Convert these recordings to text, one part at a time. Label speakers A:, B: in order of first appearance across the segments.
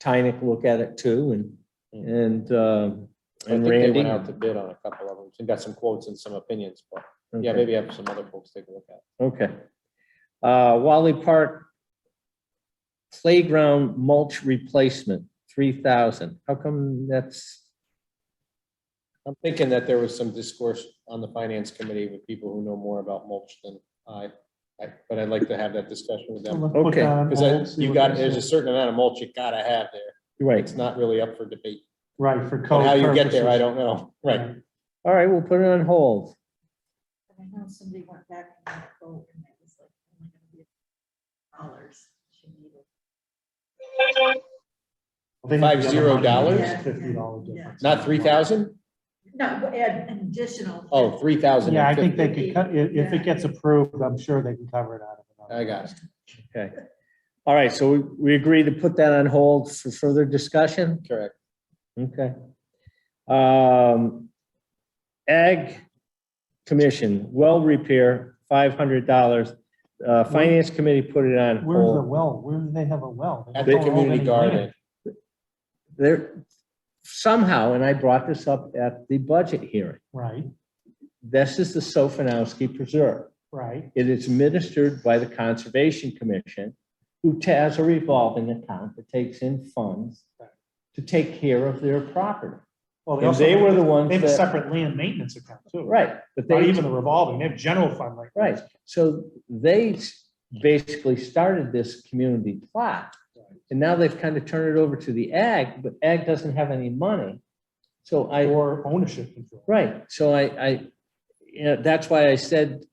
A: Tynick look at it too and, and, um,
B: I think
A: and
B: they
A: Randy.
B: went out to bid on a couple of them and got some quotes and some opinions, but yeah,
A: Okay.
B: maybe have some other folks take a look at.
A: Okay. Uh, Wally Park Playground mulch replacement, three thousand. How come that's,
B: it. I'm thinking that there was some discourse on the finance committee with people who know more about mulch than I, I, but I'd like to have that discussion with them.
A: Okay,
B: Because you got, there's a certain amount of mulch you gotta have there.
A: right,
B: It's not really up for debate.
C: Right, for code
B: And how you get there, I
C: purposes.
B: don't know. Right.
A: all right, we'll put it on hold.
D: I know somebody went back and got a quote and it was like oh only gonna be dollars she needed.
C: I think
B: Five
C: the other
B: zero
C: one is
B: dollars?
C: Fifty dollar difference.
B: Not three thousand?
D: No, but add an additional.
B: Oh, three thousand.
C: Yeah, I think they could, cut- i- if it gets approved, I'm sure they can cover it out of
B: I
C: it.
B: got it.
A: Okay. All right, so we, we agree to put that on hold for further discussion?
B: Correct.
A: Okay. Um, Ag Commission, well repair, five hundred dollars. Uh, Finance Committee put it on
C: Where's the
A: hold.
C: well? Where do they have a well? They
B: At the
C: don't hold
B: community
C: any
B: garden.
C: land.
A: There, somehow, and I brought this up at the budget hearing,
C: Right,
A: this is the Sofinowski Preserve.
C: right,
A: It is administered by the Conservation Commission, who has a revolving account that takes in funds to take care of their property.
C: well,
A: And they were
C: also,
A: the ones
C: they have a
A: that,
C: separate land maintenance account too.
A: right, but
C: Not
A: they,
C: even the revolving, they have general fund like.
A: right, so they s- basically started this community plot. And now they've kind of turned it over to the ag, but ag doesn't have any money. So I,
C: Or ownership control.
A: Right, so I, I, you know, that's why I said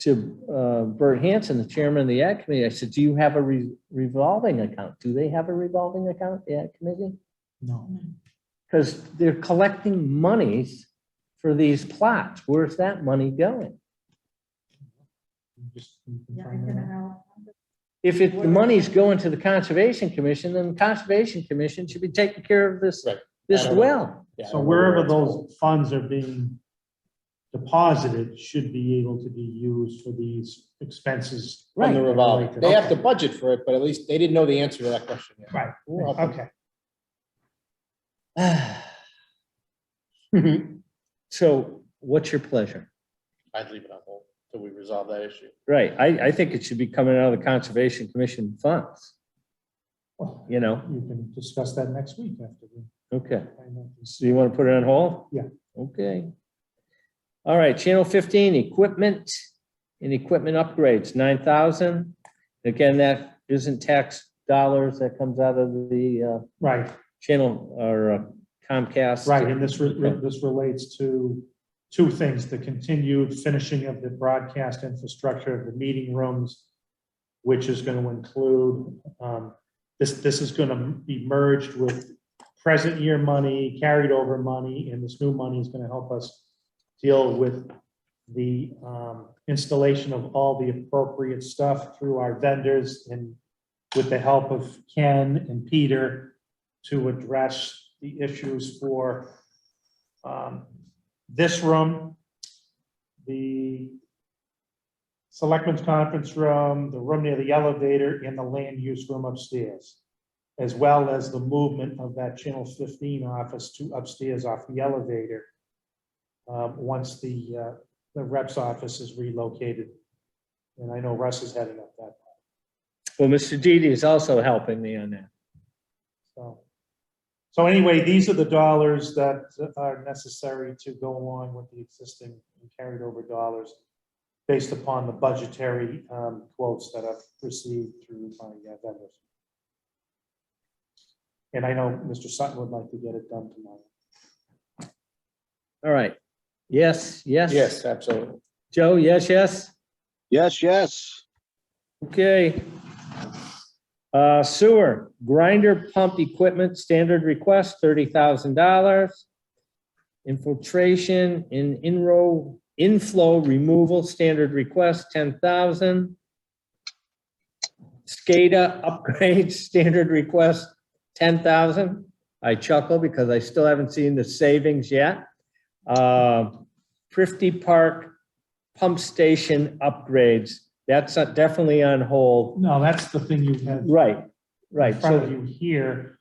A: to uh, Bert Hanson, the chairman of the ad committee, I said, do you have a re- revolving account? Do they have a revolving account, the ad committee?
C: No.
A: Because they're collecting monies for these plots. Where's that money going?
C: Just- you can
D: Yeah, I
C: find that
D: don't
C: out.
D: know.
A: If it, the money's going to the Conservation Commission, then the Conservation Commission should be taking care of this,
B: Right. I
A: this
B: don't know.
A: well.
B: Yeah, I
C: So
B: don't know where
C: wherever
B: it's going.
C: those funds are being deposited should be able to be used for these expenses.
B: From the
C: Right.
B: revolving. They have to
C: Okay.
B: budget for it, but at least they didn't know the answer to that question. yet.
C: Right,
B: Well,
C: okay.
A: So what's your pleasure?
B: I'd leave it on hold till we resolve that issue.
A: Right, I, I think it should be coming out of the Conservation Commission funds,
C: Well,
A: you know,
C: You can discuss that next week after we
A: okay,
C: find out. this.
A: so you want to put it on hold?
C: Yeah.
A: Okay. All right, Channel fifteen, equipment and equipment upgrades, nine thousand. Again, that isn't tax dollars, that comes out of the uh,
C: Right,
A: channel or uh, Comcast.
C: right, and this, re- re- this relates to two things, the continued finishing of the broadcast infrastructure of the meeting rooms, which is going to include, um, this, this is going to be merged with present year money, carried over money, and this new money is going to help us deal with the um, installation of all the appropriate stuff through our vendors and with the help of Ken and Peter to address the issues for um, this room, the selectmen's conference room, the room near the elevator, and the land use room upstairs, as well as the movement of that Channel 15 office to upstairs off the elevator, um, once the, uh, the rep's office is relocated. And I know Russ is heading up that,
A: Well, Mr. Didi is also helping me on that.
C: so. So anyway, these are the dollars that are necessary to go along with the existing and carried over dollars based upon the budgetary um, quotes that I've received through my uh, vendors. And I know Mr. Sutton would like to get it done tomorrow.
A: All right, yes, yes.
B: Yes, absolutely.
A: Joe, yes, yes?
E: Yes, yes.
A: Okay. Uh, sewer grinder pump equipment, standard request, thirty thousand dollars. Infiltration and inrow, inflow removal, standard request, ten thousand. SCADA upgrade, standard request, ten thousand. I chuckle because I still haven't seen the savings yet. Uh, Prifty Park pump station upgrades, that's uh, definitely on hold.
C: No, that's the thing you had
A: Right,
C: in
A: right.
C: front
A: So,
C: of you here